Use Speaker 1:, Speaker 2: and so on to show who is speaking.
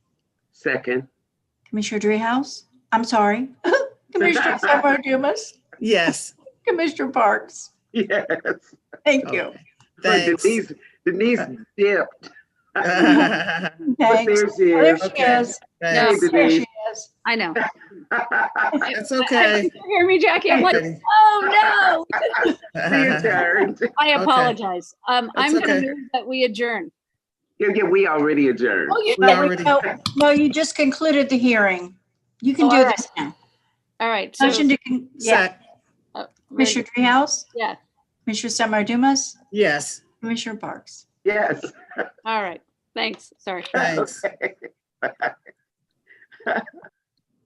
Speaker 1: Second.
Speaker 2: Commissioner Dreehouse? I'm sorry. Commissioner Summer Dumas?
Speaker 3: Yes,
Speaker 2: Commissioner Parks?
Speaker 1: Yes.
Speaker 2: Thank you.
Speaker 3: Oh, thanks.
Speaker 1: Denise, Denise dipped. But
Speaker 2: Thanks.
Speaker 1: there she
Speaker 2: There
Speaker 1: is.
Speaker 2: she
Speaker 3: Okay.
Speaker 2: is.
Speaker 3: Thanks.
Speaker 1: Hey,
Speaker 2: There
Speaker 1: Denise.
Speaker 2: she is.
Speaker 4: I know.
Speaker 3: That's
Speaker 4: I-
Speaker 3: okay.
Speaker 4: you Hear me, Jackie? I'm like, oh no,
Speaker 1: We adjourned.
Speaker 4: I apologize. Um, I'm
Speaker 3: That's
Speaker 4: gonna
Speaker 3: okay.
Speaker 4: move that we adjourn.
Speaker 1: Yeah, yeah, we already adjourned.
Speaker 4: Oh, you,
Speaker 3: We
Speaker 2: No,
Speaker 3: already-
Speaker 2: no, no, you just concluded the hearing. You can
Speaker 4: Oh,
Speaker 2: do
Speaker 4: all right.
Speaker 2: this now.
Speaker 4: all right. so-
Speaker 2: Motion to, con- yeah,
Speaker 3: Sec-
Speaker 2: Commissioner Dreehouse?
Speaker 4: Yeah.
Speaker 2: Commissioner Summer Dumas?
Speaker 3: Yes,
Speaker 2: Commissioner Parks?
Speaker 1: Yes.
Speaker 4: All right, thanks, sorry.
Speaker 3: thanks.
Speaker 1: Okay.